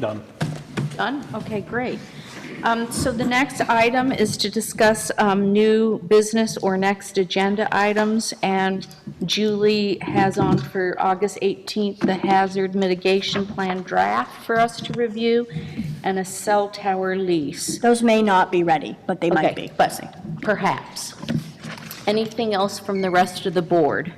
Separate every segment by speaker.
Speaker 1: Done.
Speaker 2: Done? Okay, great. Um, So the next item is to discuss um, new business or next agenda items, and Julie has on for August 18th the hazard mitigation plan draft for us to review, and a cell tower lease.
Speaker 3: Those may not be ready, but they might
Speaker 2: Okay,
Speaker 3: be.
Speaker 2: But perhaps. Anything else from the rest of the board?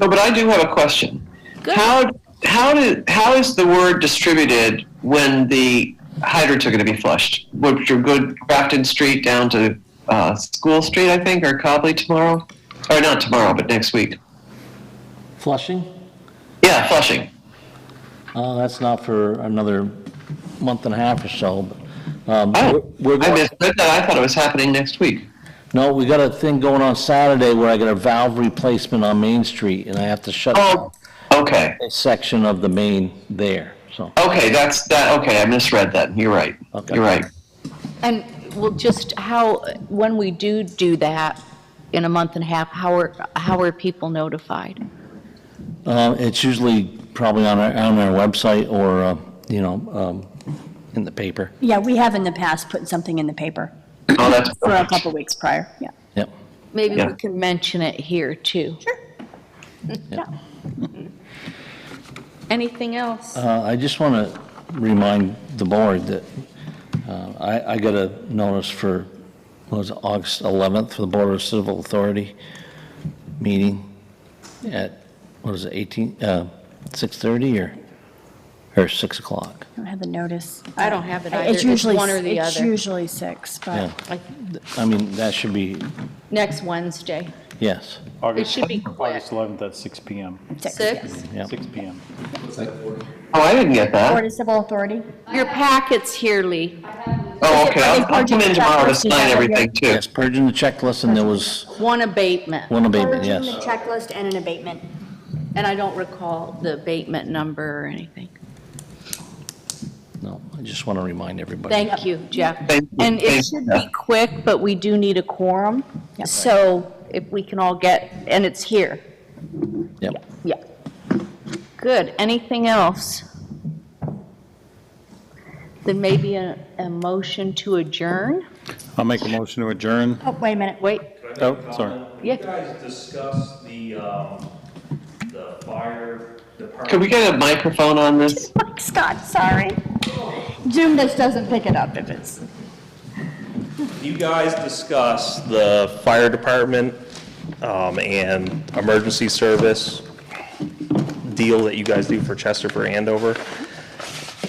Speaker 4: No, but I do have a question.
Speaker 2: Good.
Speaker 4: How how do how is the word distributed when the hydrants are going to be flushed? Would you go Grafton Street down to uh, School Street, I think, or Cobley tomorrow, or not tomorrow, but next week?
Speaker 5: Flushing?
Speaker 4: Yeah, flushing.
Speaker 5: Uh, that's not for another month and a half or so, but, um,
Speaker 4: Oh,
Speaker 5: we're,
Speaker 4: I
Speaker 5: we're-
Speaker 4: misread that. I thought it was happening next week.
Speaker 5: no, we got a thing going on Saturday where I got a valve replacement on Main Street, and I have to shut
Speaker 4: Oh,
Speaker 5: down
Speaker 4: okay,
Speaker 5: a section of the main there, so.
Speaker 4: okay, that's that. Okay, I misread that. You're right.
Speaker 5: Okay.
Speaker 4: You're right.
Speaker 2: And well, just how, when we do do that in a month and a half, how are, how are people notified?
Speaker 5: Uh, it's usually probably on our, on our website or, uh, you know, um, in the paper,
Speaker 3: Yeah, we have in the past put something in the paper
Speaker 4: Oh, that's
Speaker 3: for a
Speaker 4: perfect.
Speaker 3: couple weeks prior, yeah.
Speaker 5: yep.
Speaker 2: Maybe
Speaker 4: Yeah.
Speaker 2: we can mention it here, too. Sure. Mm-hmm.
Speaker 5: Yeah.
Speaker 2: Anything else?
Speaker 5: Uh, I just want to remind the board that uh, I, I got a notice for, what was it, August 11th for the Board of Civil Authority meeting at, what is it, 18, uh, 6:30 or, or 6 o'clock?
Speaker 3: I don't have the notice.
Speaker 2: I don't have it
Speaker 3: I-
Speaker 2: either. It's
Speaker 3: usually
Speaker 2: one or
Speaker 3: s-
Speaker 2: the
Speaker 3: It's
Speaker 2: other.
Speaker 3: usually six, but
Speaker 5: Yeah, I mean, that should be,
Speaker 2: Next Wednesday,
Speaker 5: yes,
Speaker 1: August-
Speaker 2: should be quick.
Speaker 1: August 11th at 6 PM.
Speaker 3: six. yeah.
Speaker 2: 6?
Speaker 5: yeah.
Speaker 1: 6 PM.
Speaker 4: Oh, I didn't get
Speaker 3: Board
Speaker 4: that.
Speaker 3: of Civil Authority?
Speaker 2: Your packet's here, Lee.
Speaker 4: Oh, okay. I'll, I'll come in tomorrow to
Speaker 3: Yeah,
Speaker 4: sign
Speaker 3: yeah.
Speaker 4: everything too.
Speaker 5: Yes, purging the checklist, and there was
Speaker 2: One abatement,
Speaker 5: one abatement,
Speaker 3: Purging the
Speaker 5: yes.
Speaker 3: checklist and an abatement.
Speaker 2: and I don't recall the abatement number or anything.
Speaker 5: No, I just want to remind everybody.
Speaker 2: Thank you, Jeff.
Speaker 4: Thank you.
Speaker 2: And it
Speaker 4: Thank
Speaker 2: should
Speaker 4: you.
Speaker 2: be quick, but we do need a quorum, so if we can all get, and it's here.
Speaker 5: Yep.
Speaker 2: Yeah. Good. Anything else? Then maybe a, a motion to adjourn?
Speaker 6: I'll make a motion to adjourn.
Speaker 3: Oh, wait a minute.
Speaker 2: Wait,
Speaker 6: Oh, sorry.
Speaker 2: Yeah.
Speaker 7: You guys discussed the, um, the fire department.
Speaker 4: Could we get a microphone on this?
Speaker 3: Mike Scott, sorry. Zoom just doesn't pick it up if it's.
Speaker 7: You guys discussed the fire department, um, and emergency service deal that you guys do for Chester for Andover.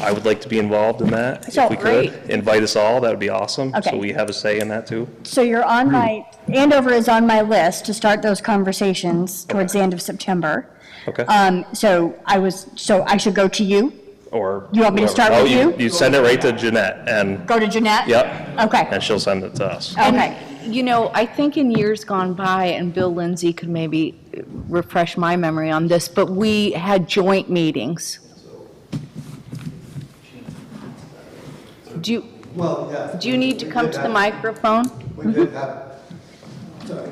Speaker 7: I would like to be involved in that,
Speaker 3: So,
Speaker 7: if we could.
Speaker 3: great.
Speaker 7: Invite us all, that would be awesome.
Speaker 3: Okay.
Speaker 7: So we have a say in that too.
Speaker 3: So you're on my, Andover is on my list to start those conversations towards the end of September.
Speaker 7: Okay.
Speaker 3: Um, so I was, so I should go to you,
Speaker 7: Or.
Speaker 3: You want me to
Speaker 7: whoever.
Speaker 3: start
Speaker 7: Oh,
Speaker 3: with you?
Speaker 7: You send it right to Jeanette, and,
Speaker 3: go to Jeanette?
Speaker 7: yep,
Speaker 3: Okay,
Speaker 7: and she'll send it to us.
Speaker 3: okay.
Speaker 2: You know, I think in years gone by, and Bill Lindsay could maybe refresh my memory on this, but we had joint meetings. Do you,
Speaker 8: Well, yeah.
Speaker 2: do you need to come to the
Speaker 8: mic?
Speaker 2: microphone?
Speaker 8: We did have, sorry.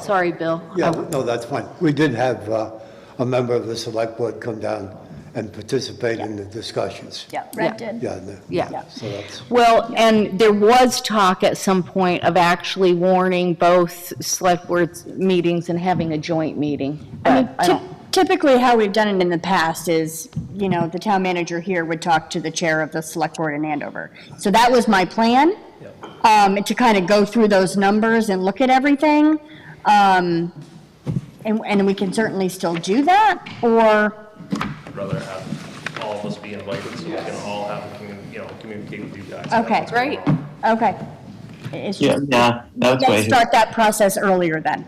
Speaker 2: Sorry, Bill.
Speaker 8: Yeah, no, that's fine. We did have uh, a member of the select board come down and participate in the discussions.
Speaker 3: Yeah,
Speaker 2: Yeah.
Speaker 3: Red did.
Speaker 8: Yeah. no.
Speaker 2: Yeah.
Speaker 8: So that's,
Speaker 2: Well, and there was talk at some point of actually warning both select boards meetings and having a joint meeting.
Speaker 3: I mean,
Speaker 2: but I
Speaker 3: typ-
Speaker 2: don't-
Speaker 3: typically how we've done it in the past is, you know, the town manager here would talk to the chair of the select board in Andover. So that was my plan, um, to kind of go through those numbers and look at everything. Um, and, and we can certainly still do that, or,
Speaker 7: I'd rather have all of us be invited so we can all have, a commu- you know, communicate with you guys.
Speaker 3: okay.
Speaker 7: That's what we're
Speaker 2: Great.
Speaker 3: Okay. It's
Speaker 4: Yeah,
Speaker 3: just,
Speaker 4: yeah, that's
Speaker 3: let's
Speaker 4: way.
Speaker 3: start that process earlier then.